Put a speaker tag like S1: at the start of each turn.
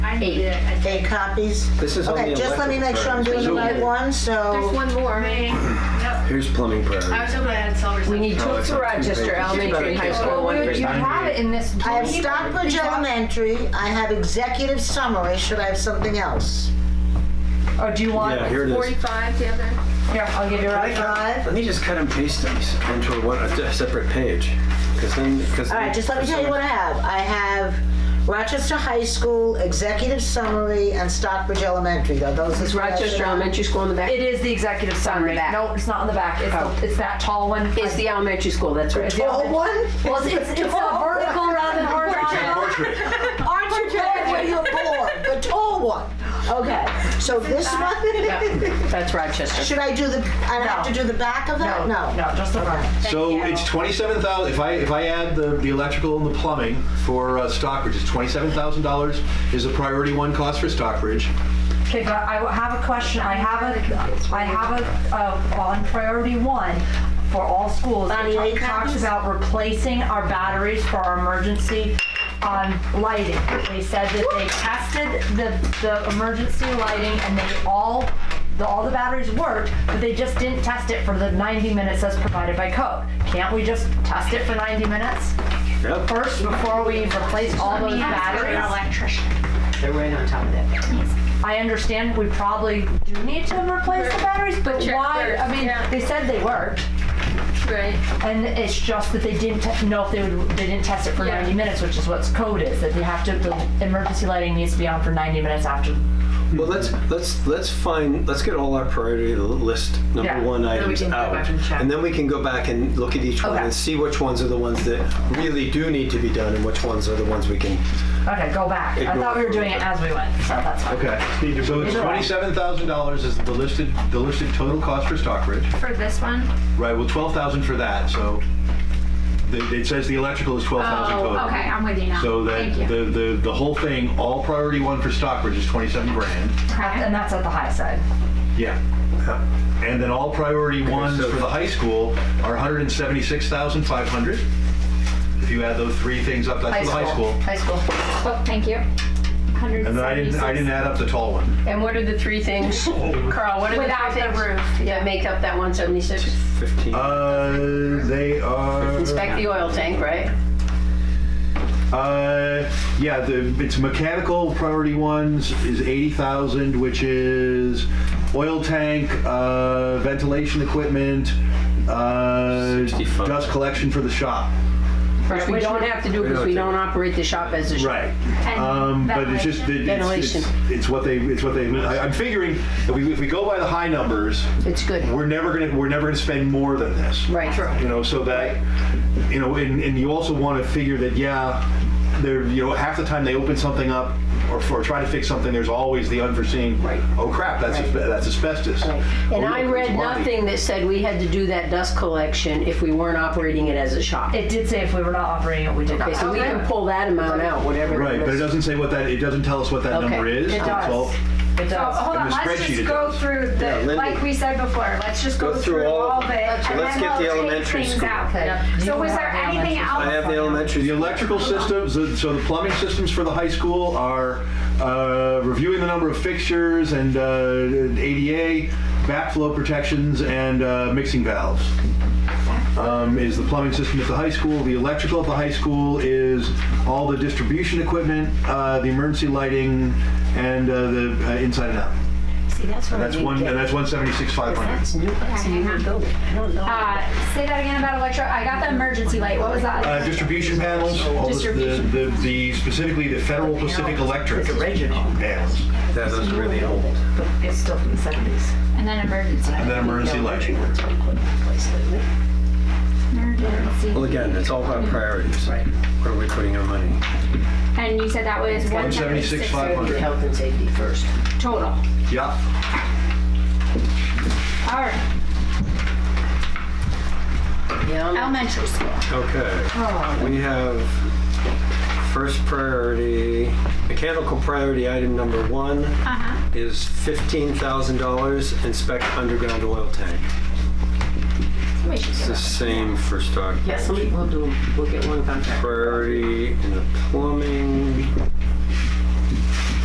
S1: Eight.
S2: Eight copies?
S3: This is
S2: Okay,
S3: only
S2: just let me
S3: electric
S2: make sure I'm
S3: current.
S2: doing the right one,
S4: There's
S2: so,
S4: one more.
S1: Main. Yep.
S3: Here's plumbing
S1: I
S3: priority.
S1: was hoping I had silver.
S5: We need two
S3: No, it's
S5: for
S3: not two
S5: Rochester
S3: pages.
S5: Elementary, High School,
S4: Well,
S5: one for
S4: you have it in this.
S2: I have Stockbridge Elementary, I have executive summary, should I have something else?
S4: oh,
S5: Or do you want?
S3: Yeah, here it is.
S4: Forty-five, the other.
S5: Here, I'll give you right
S2: Five?
S3: Let me just cut and paste these into one, a separate page, because then, because.
S2: All right, just let me tell you what I have. I have Rochester High School, executive summary, and Stockbridge Elementary, though, those
S5: It's
S2: is.
S5: Rochester Elementary School in the back.
S1: It is the executive summary.
S5: No,
S4: No, it's not on the back. It's, the- it's that tall one.
S5: Oh. It's the elementary school, that's right.
S4: Yeah.
S2: Oh, one?
S4: Well, it's, it's, it's a vertical rather than horizontal.
S2: Aren't you glad when you're born? The tall one. Okay, so this one,
S5: That's Rochester.
S2: should I do the, I have to do the back of that? No.
S1: No, just the front.
S6: So it's twenty-seven thousand, if I, if I add the, the electrical and the plumbing for uh, Stockbridge, it's twenty-seven thousand dollars is the priority one cost for Stockbridge.
S7: Okay, but I have a question, I have a, I have a, uh, on priority one, for all schools,
S2: Bonnie, any
S7: it talks
S2: copies?
S7: about replacing our batteries for our emergency, um, lighting. They said that they tested the, the emergency lighting and they all, the, all the batteries worked, but they just didn't test it for the ninety minutes as provided by code. Can't we just test it for ninety minutes
S3: Yep.
S7: first before we replace all those batteries?
S5: They're right on top of that.
S7: I understand we probably do need to replace the batteries, but
S4: Check
S7: why,
S4: first,
S7: I mean,
S4: yeah.
S7: they said they worked,
S4: Right.
S7: and it's just that they didn't te- know if they would, they didn't test it for
S4: Yeah.
S7: ninety minutes, which is what's code is, that they have to, the emergency lighting needs to be on for ninety minutes after.
S3: Well, let's, let's, let's find, let's get all our priority list
S7: Yeah.
S3: number one
S1: we
S3: items
S1: can go
S3: out.
S1: back and check.
S3: And then we can go back and look at each one
S7: Okay.
S3: and see which ones are the ones that really do need to be done and which ones are the ones we can.
S7: Okay, go back, I
S3: Ignore
S7: thought we were
S3: for a
S7: doing it
S3: minute.
S7: as we went, so that's fine.
S6: Okay. So it's
S7: Either way.
S6: twenty-seven thousand dollars is the listed, the listed total cost for Stockbridge.
S4: For this one?
S6: Right, well, twelve thousand for that, so the- it says the electrical is twelve thousand total.
S4: Oh, okay, I'm with you now.
S6: So that,
S4: Thank you.
S6: the, the, the whole thing, all priority one for Stockbridge is twenty-seven grand.
S4: Okay.
S7: And that's at the high side.
S6: Yeah. And then all priority ones
S3: so-
S6: for the high school are 176,500. If you add those three things up, that's for the high school.
S7: High school.
S4: Oh, thank you.
S6: And then I didn't, I didn't add up the tall one.
S5: And what are the three things, Carl, what are the
S4: Without
S5: three
S4: the
S5: things
S4: roof.
S5: that make up that 176?
S3: Fifteen.
S6: Uh, they are,
S5: Inspect the oil tank, right?
S6: uh, yeah, the, it's mechanical priority ones is 80,000, which is oil tank, uh, ventilation equipment, uh,
S3: 65.
S6: dust collection for the shop.
S5: Which we don't have to do because we don't operate the shop as a shop.
S6: Right. Um, but it's just, that it's,
S5: Ventilation.
S6: it's, it's what they, it's what they, I, I'm figuring, if we, if we go by the high numbers,
S5: It's good.
S6: we're never gonna, we're never gonna spend more than this.
S5: Right. True.
S6: You know, so that, you know, and, and you also wanna figure that, yeah, there, you know, half the time they open something up or, or try to fix something, there's always the unforeseen,
S5: Right.
S6: oh crap, that's, asbe- that's asbestos.
S5: And
S6: Oh,
S5: I
S6: look,
S5: read
S6: it's Monty.
S5: nothing that said we had to do that dust collection if we weren't operating it as a shop.
S7: It did say if we were not operating it, we did
S5: Okay,
S7: not.
S5: so we can pull that amount out, whatever.
S6: Right, but it
S5: is.
S6: doesn't say what that, it doesn't tell us what that
S5: Okay.
S6: number is.
S5: It
S6: It's
S7: does.
S6: all-
S7: It
S1: So,
S7: does.
S1: hold
S6: In
S1: on,
S6: the
S1: let's
S6: spreadsheet
S1: just
S6: it
S1: go
S6: does.
S1: through
S3: Yeah,
S1: the,
S3: Lindy.
S1: like we said before, let's just go through all of it. and
S3: Let's
S1: then
S3: get the
S1: we'll take
S3: elementary
S1: things
S3: school.
S1: out.
S7: Okay.
S1: So
S7: You
S1: was
S7: have
S1: there
S7: the
S1: anything
S7: elementary
S1: else?
S3: I have the elementary.
S6: The electrical systems, uh, so the plumbing systems for the high school are uh, reviewing the number of fixtures and uh, ADA, backflow protections, and uh, mixing valves. Um, Is the plumbing system at the high school, the electrical at the high school is all the distribution equipment, uh, the emergency lighting, and uh, the uh, inside and out.
S5: See, that's what
S6: And
S5: I
S6: that's
S5: didn't
S6: one,
S5: get.
S6: and that's 176,500.
S5: That's new, that's a new building. I don't know.
S1: Uh, say that again about electro, I got the emergency light, what was that?
S6: Uh, Distribution panels, all the- the- the, the- specifically the Federal Pacific Electric panels.
S3: That was really old.
S7: It's still from the seventies.
S1: And then emergency.
S6: And then emergency lighting.
S3: Well, again, it's all about priorities. Right. Where are we putting our money?
S1: And you said that was one seventy-six.
S6: 176,500.
S5: Health and safety first.
S1: Total.
S6: Yeah.
S1: Alright,
S5: Yeah.
S1: elementary school.
S5: Oh.
S3: Okay. We have first priority, mechanical priority item number one
S1: Uh-huh.
S3: is $15,000 inspect underground oil tank.
S5: We should
S3: It's
S5: get
S3: the
S5: that.
S3: same for stock.
S5: Yeah, somebody, we'll do, we'll get one contract.
S3: Priority in the plumbing.